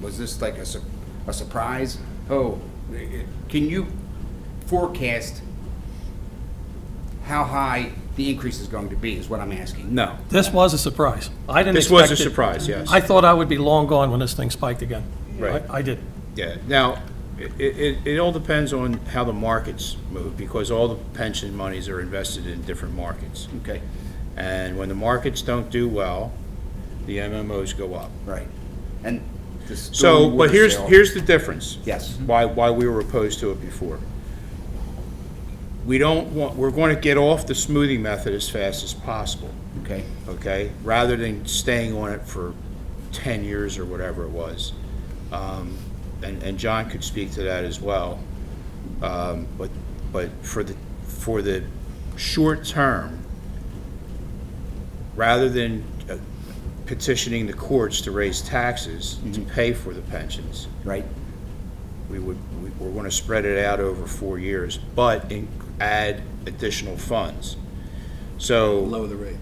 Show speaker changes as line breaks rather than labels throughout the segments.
Was this like a, sur- a surprise? Oh, i- i- can you forecast how high the increase is going to be, is what I'm asking? No.
This was a surprise. I didn't
This
expect it.
was a surprise, yes.
I thought I would be long gone when this thing spiked again.
Right.
I I did.
Yeah, now, it, it, it all depends on how the markets move, because all the pension monies are invested in different markets.
Okay,
And when the markets don't do well, the MMOs go up.
right. And the stormy
So, but
water
here's,
sale-
here's the difference.
Yes.
Why, why we were opposed to it before. We don't want, we're going to get off the smoothing method as fast as possible,
Okay,
okay? Rather than staying on it for 10 years or whatever it was. Um, And, and John could speak to that as well. Um, But, but for the, for the short term, rather than uh, petitioning the courts to raise taxes to pay for the pensions,
right,
we would, we- we're going to spread it out over four years, but in- add additional funds. So. Lower the rate.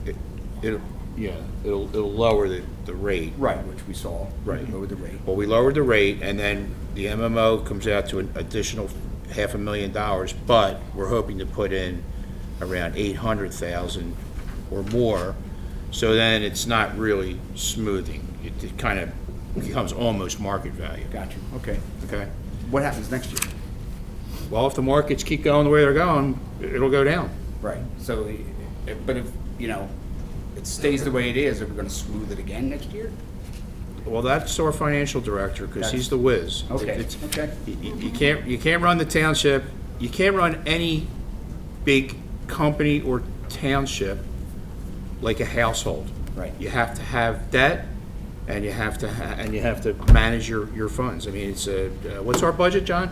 It'll, yeah, it'll, it'll lower the, the rate.
right, which we saw.
Right.
Lower the rate.
Well, we lowered the rate, and then the MMO comes out to an additional half a million dollars, but we're hoping to put in around eight hundred thousand or more. So then it's not really smoothing. It- It kind of becomes almost market value,
Got you, okay.
okay?
What happens next year?
Well, if the markets keep going the way they're going, it'll go down.
Right, so, i- i- but if, you know, it stays the way it is, are we gonna smooth it again next year?
Well, that's our financial director, because he's the whiz.
Okay,
It's-
okay.
You you can't, you can't run the township, you can't run any big company or township like a household.
Right.
You have to have debt, and you have to, ha- and you have to manage your, your funds. I mean, it's a, uh, what's our budget, John?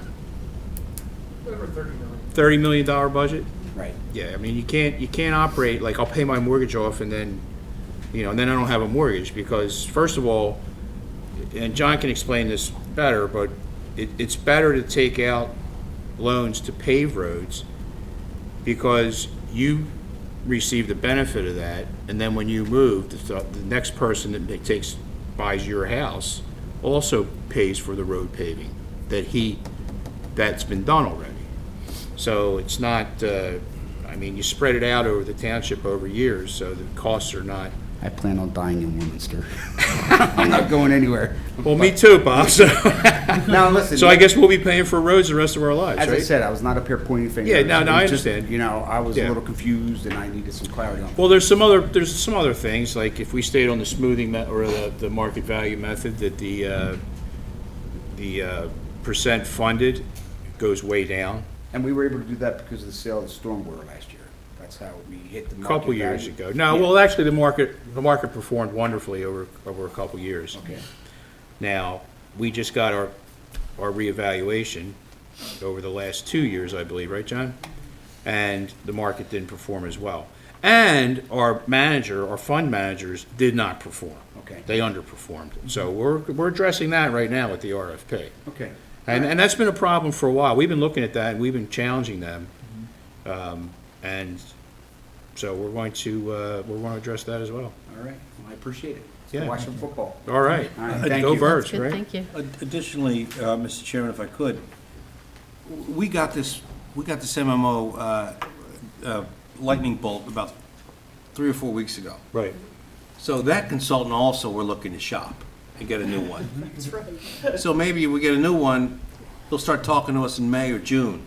Thirty million dollar budget?
Right,
Yeah, I mean, you can't, you can't operate, like, I'll pay my mortgage off and then, you know, and then I don't have a mortgage, because first of all, and John can explain this better, but it, it's better to take out loans to pave roads, because you receive the benefit of that, and then when you move, the, the next person that ma- takes, buys your house, also pays for the road paving that he, that's been done already. So it's not, uh, I mean, you spread it out over the township over years, so the costs are not.
I plan on dying in Warminster. I'm not going anywhere.
Well, me too, Bob, so,
Now, listen.
so I guess we'll be paying for roads the rest of our lives,
As I
right?
said, I was not up here pointing fingers.
Yeah, no, no, I
It was just,
understand.
You know, I was a
Yeah.
little confused and I needed some clarity on. it.
Well, there's some other, there's some other things, like if we stayed on the smoothing me, or the, the market value method, that the, uh, the uh, percent funded goes way down.
And we were able to do that because of the sale of the storm water last year. That's how we hit the
a
market
Couple years
value.
ago. No, well, actually, the market, the market performed wonderfully over, over a couple years.
Okay,
Now, we just got our, our reevaluation over the last two years, I believe, right, John? And the market didn't perform as well. And our manager, our fund managers did not perform.
Okay.
They underperformed. So we're, we're addressing that right now with the RFP.
okay.
And, and that's been a problem for a while. We've been looking at that, and we've been challenging them. Um, And so we're going to, uh, we're going to address that as well.
All right, well, I appreciate it.
Yeah.
Let's Watch some football.
All right.
All right, thank
Go
you.
Birds,
Good,
right?
thank you.
Additionally, uh, Mr. Chairman, if I could, w- we got this, we got this MMO uh, uh, lightning bolt about three or four weeks ago.
Right.
So that consultant also, we're looking to shop and get a new one. So maybe we get a new one, they'll start talking to us in May or June,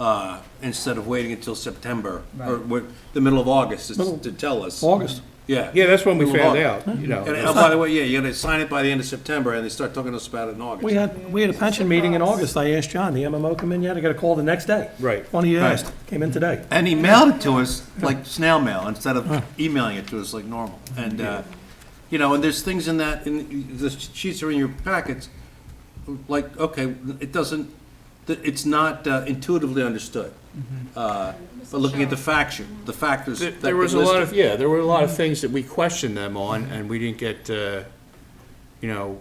uh, instead of waiting until September, or what- the middle of August to- to tell us.
August.
Yeah.
Yeah, that's when we
Middle of
found
August.
out, you know.
And oh, by the way, yeah, you gotta sign it by the end of September, and they start talking to us about it in August.
We had, we had a pension meeting in August. I asked John, the MMO come in yet? I got a call the next day.
Right.
One he
Right.
asked, came in today.
And he mailed it to us like snail mail instead of emailing it to us like normal. And, uh, you know, and there's things in that, in, the sheets are in your packets, like, okay, it doesn't, that it's not uh, intuitively understood. Uh, But looking at the faction, the factors
Mm-hmm. There-
that
There
were
was a lot
listed.
of, yeah, there were a lot of things that we questioned them on, and we didn't get, uh, you know,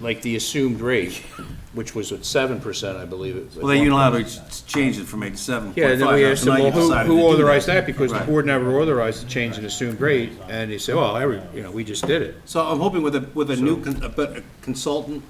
like the assumed rate. which was at seven percent, I believe it.
Well, they unilaterally s- changed it from eight to seven
Yeah,
point
and then we
five,
asked
so
them,
now you
well, who,
decided to
who
do
authorized that? Because the
Right.
board never authorized the change in assumed rate, and they said, well, every, you know, we just did it.
So I'm hoping with a, with a new, con- a better consultant